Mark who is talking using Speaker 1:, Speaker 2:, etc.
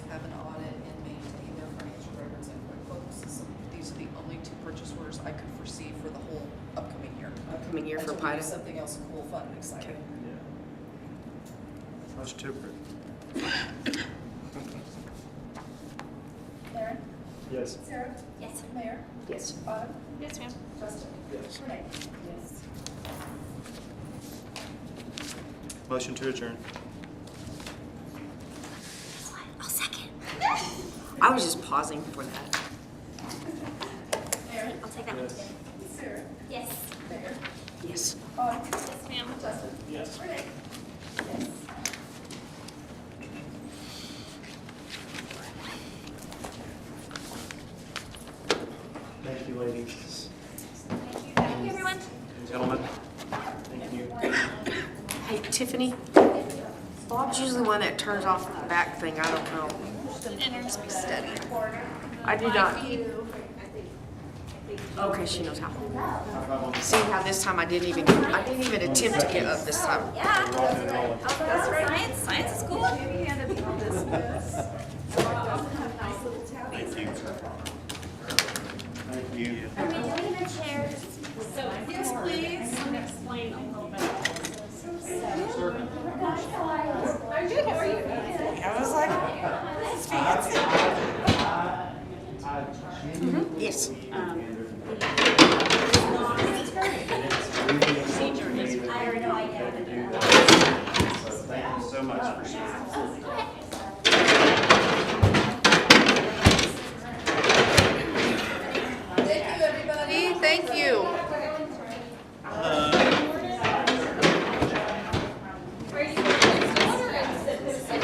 Speaker 1: pie
Speaker 2: do
Speaker 1: to-
Speaker 2: something else cool, fun, and exciting.
Speaker 3: Much to approve.
Speaker 2: Aaron,
Speaker 3: Yes.
Speaker 2: Sarah,
Speaker 4: Yes.
Speaker 2: Mayor,
Speaker 1: Yes.
Speaker 2: Autumn,
Speaker 4: Yes, ma'am.
Speaker 2: Justin,
Speaker 3: Yes.
Speaker 2: Renee. Yes.
Speaker 3: Motion to adjourn.
Speaker 4: I'll second.
Speaker 1: I was just pausing for that.
Speaker 2: Aaron,
Speaker 4: I'll take that one.
Speaker 3: Yes.
Speaker 2: Sarah,
Speaker 4: Yes.
Speaker 2: Mayor,
Speaker 1: Yes.
Speaker 2: Autumn,
Speaker 4: Yes, ma'am.
Speaker 2: Justin,
Speaker 3: Yes.
Speaker 2: Renee. Yes.
Speaker 3: Thank you, ladies.
Speaker 4: Thank you. Thank you, everyone.
Speaker 3: Gentlemen, thank you.
Speaker 1: Hey, Tiffany? Bob's usually the one that turns off the back thing. I don't know. I do not. Okay, she knows how. See how this time I didn't even, I didn't even attempt to get up this time.
Speaker 4: Yeah.
Speaker 3: Rocking and rolling.
Speaker 4: That's right. Science, science is cool.
Speaker 3: Thank you.
Speaker 4: Are we doing the chairs?
Speaker 2: Yes, please.
Speaker 5: I was like,
Speaker 1: Yes.
Speaker 3: Mm-hmm. Procedure is. I have no idea. So thank you so much for sharing.